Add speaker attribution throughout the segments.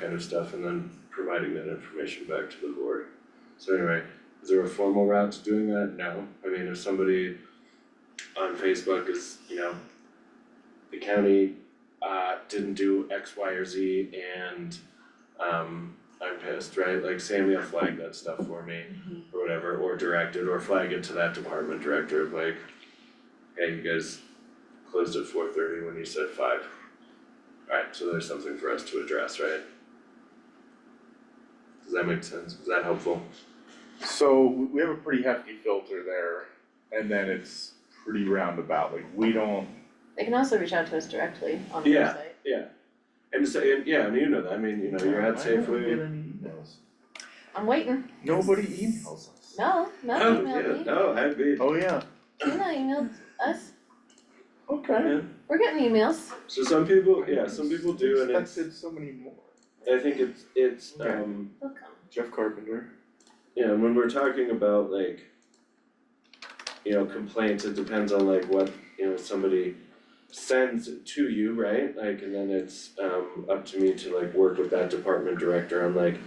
Speaker 1: kind of stuff and then providing that information back to the board. So anyway, is there a formal route to doing that? No, I mean, if somebody on Facebook is, you know, the county uh didn't do X, Y, or Z and um I'm pissed, right? Like Sammy will flag that stuff for me or whatever, or direct it, or flag it to that department director, of like, hey, you guys closed at four thirty when you said five. Alright, so there's something for us to address, right? Does that make sense? Is that helpful?
Speaker 2: So we- we have a pretty hefty filter there and then it's pretty roundabout, like we don't,
Speaker 3: They can also reach out to us directly on the
Speaker 1: Yeah.
Speaker 3: website.
Speaker 1: And so, and yeah, and you know that, I mean, you know, you're at
Speaker 2: Why don't we
Speaker 1: Safeway.
Speaker 2: get any emails?
Speaker 3: I'm waiting.
Speaker 2: Nobody emails us.
Speaker 3: No, not
Speaker 1: Oh,
Speaker 3: emailed
Speaker 1: yeah,
Speaker 3: me.
Speaker 1: no, I'd be,
Speaker 2: Oh, yeah,
Speaker 3: Tina emailed us.
Speaker 2: okay.
Speaker 1: yeah.
Speaker 3: We're getting emails.
Speaker 1: So some people, yeah, some people do and it's,
Speaker 2: Expected so many more.
Speaker 1: I think it's, it's,
Speaker 2: Okay.
Speaker 1: um,
Speaker 3: They'll come.
Speaker 2: Jeff Carpenter.
Speaker 1: Yeah, and when we're talking about like, you know, complaints, it depends on like what, you know, somebody sends to you, right? Like, and then it's um up to me to like work with that department director on like,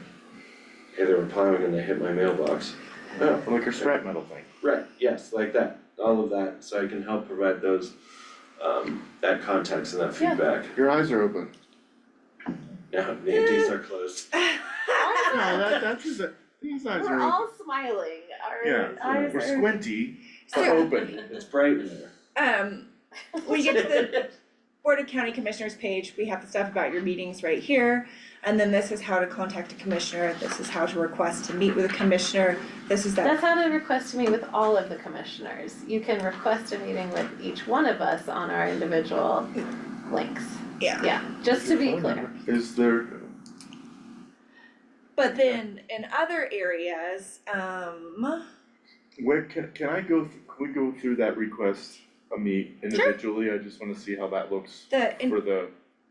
Speaker 1: hey, they were plowing and they hit my mailbox. Oh,
Speaker 2: Like your scrap metal thing.
Speaker 1: right, yes, like that, all of that, so I can help provide those um that context and that
Speaker 3: Yeah.
Speaker 1: feedback.
Speaker 2: Your eyes are open.
Speaker 1: Now, the empties are closed.
Speaker 2: No, that, that's, his- these eyes are
Speaker 3: We're
Speaker 2: open.
Speaker 3: all smiling.
Speaker 2: Yeah,
Speaker 3: Our eyes
Speaker 2: We're
Speaker 3: are.
Speaker 2: squinty, but
Speaker 4: So,
Speaker 2: open.
Speaker 1: It's bright in there.
Speaker 4: um, when you get to the Board of County Commissioners page, we have the stuff about your meetings right here. And then this is how to contact a commissioner, this is how to request to meet with a commissioner, this is
Speaker 3: That's
Speaker 4: that.
Speaker 3: how to request to meet with all of the commissioners. You can request a meeting with each one of us on our individual links.
Speaker 4: Yeah.
Speaker 3: Yeah, just to be clear.
Speaker 2: Is there,
Speaker 4: But then in other areas, um,
Speaker 2: where, can, can I go, th- can we go through that request, a meet individually? I just wanna see how that looks
Speaker 4: the, in-
Speaker 2: for the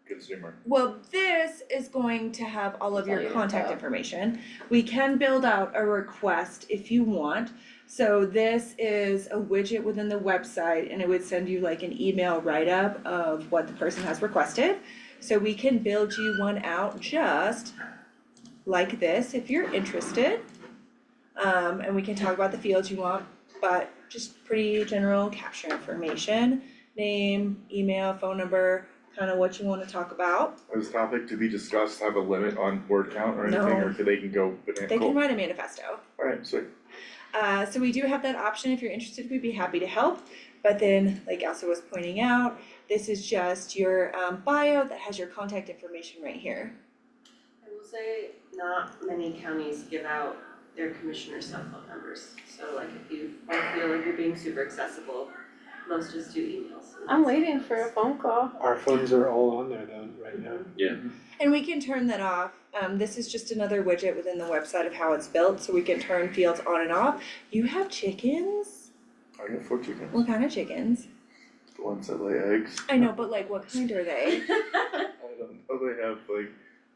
Speaker 2: consumer.
Speaker 4: well, this is going to have all of
Speaker 3: All
Speaker 4: your
Speaker 3: your
Speaker 4: contact
Speaker 3: info.
Speaker 4: information. We can build out a request if you want. So this is a widget within the website and it would send you like an email write-up of what the person has requested. So we can build you one out just like this if you're interested. Um, and we can talk about the fields you want, but just pretty general capture information, name, email, phone number, kind of what you wanna talk about.
Speaker 2: Is this topic to be discussed have a limit on word count or anything,
Speaker 4: No.
Speaker 2: or could they can go
Speaker 4: They can
Speaker 2: bananas?
Speaker 4: write a manifesto.
Speaker 2: Alright, so
Speaker 4: Uh, so we do have that option if you're interested, we'd be happy to help. But then, like Elsa was pointing out, this is just your um, bio that has your contact information right here.
Speaker 5: I will say, not many counties give out their commissioner's cell phone numbers, so like if you don't feel like you're being super accessible, most just do emails. and
Speaker 3: I'm
Speaker 5: that's-
Speaker 3: waiting for a phone call.
Speaker 6: Our phones are all on there though, right now.
Speaker 4: And we can turn that off. Um, this is just another widget within the website of how it's built, so we can turn fields on and off. You have chickens?
Speaker 2: I got four chickens,
Speaker 4: What kind of chickens?
Speaker 2: the ones that lay eggs.
Speaker 4: I know, but like, what kind are they?
Speaker 2: I don't know, they have like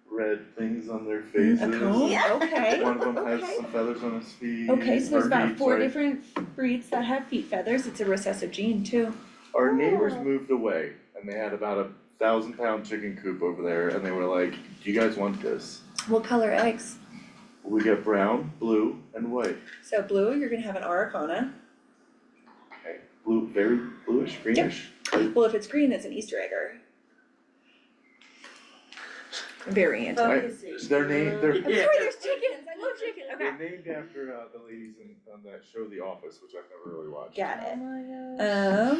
Speaker 2: red things on their
Speaker 4: A
Speaker 2: faces.
Speaker 4: comb? Okay.
Speaker 2: One of them has
Speaker 4: Okay.
Speaker 2: some feathers on his feet.
Speaker 4: Okay, so there's
Speaker 2: Our
Speaker 4: about
Speaker 2: neigh-
Speaker 4: four
Speaker 2: sorry,
Speaker 4: different breeds that have feet feathers. It's a recessive gene too.
Speaker 2: Our neighbors
Speaker 3: Oh.
Speaker 2: moved away and they had about a thousand pound chicken coop over there and they were like, do you guys want this?
Speaker 4: What color eggs?
Speaker 2: We got brown, blue, and white.
Speaker 4: So blue, you're gonna have an araucana.
Speaker 2: Okay. Blue, very bluish, greenish.
Speaker 4: Well, if it's green, it's an Easter egger. Variant.
Speaker 2: I-
Speaker 5: Focusing.
Speaker 2: Their name, their
Speaker 4: I'm sorry, there's chickens. I love chickens. Okay.
Speaker 2: They're named after uh the ladies in on that show The Office, which I've never really watched.
Speaker 4: Got
Speaker 3: Oh
Speaker 4: it.
Speaker 3: my gosh.
Speaker 4: Um,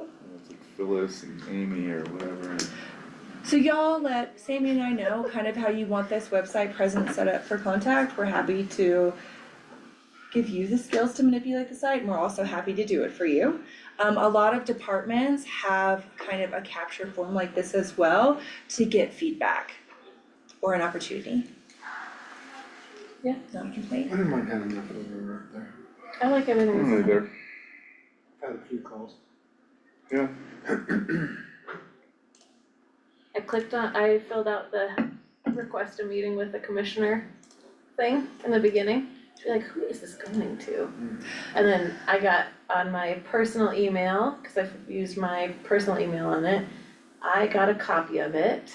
Speaker 2: And It's like Phyllis and Amy or whatever.
Speaker 4: so y'all let Sammy and I know kind of how you want this website presence set up for contact. We're happy to give you the skills to manipulate the site and we're also happy to do it for you. Um, a lot of departments have kind of a capture form like this as well to get feedback or an opportunity.
Speaker 3: Yeah.
Speaker 4: Not a complaint.
Speaker 6: I don't mind having that over up there.
Speaker 3: I like everything.
Speaker 2: Only there.
Speaker 6: I've had a few calls.
Speaker 3: I clicked on, I filled out the request a meeting with the commissioner thing in the beginning. She's like, who is this going to? And then I got on my personal email, cause I've used my personal email on it, I got a copy of it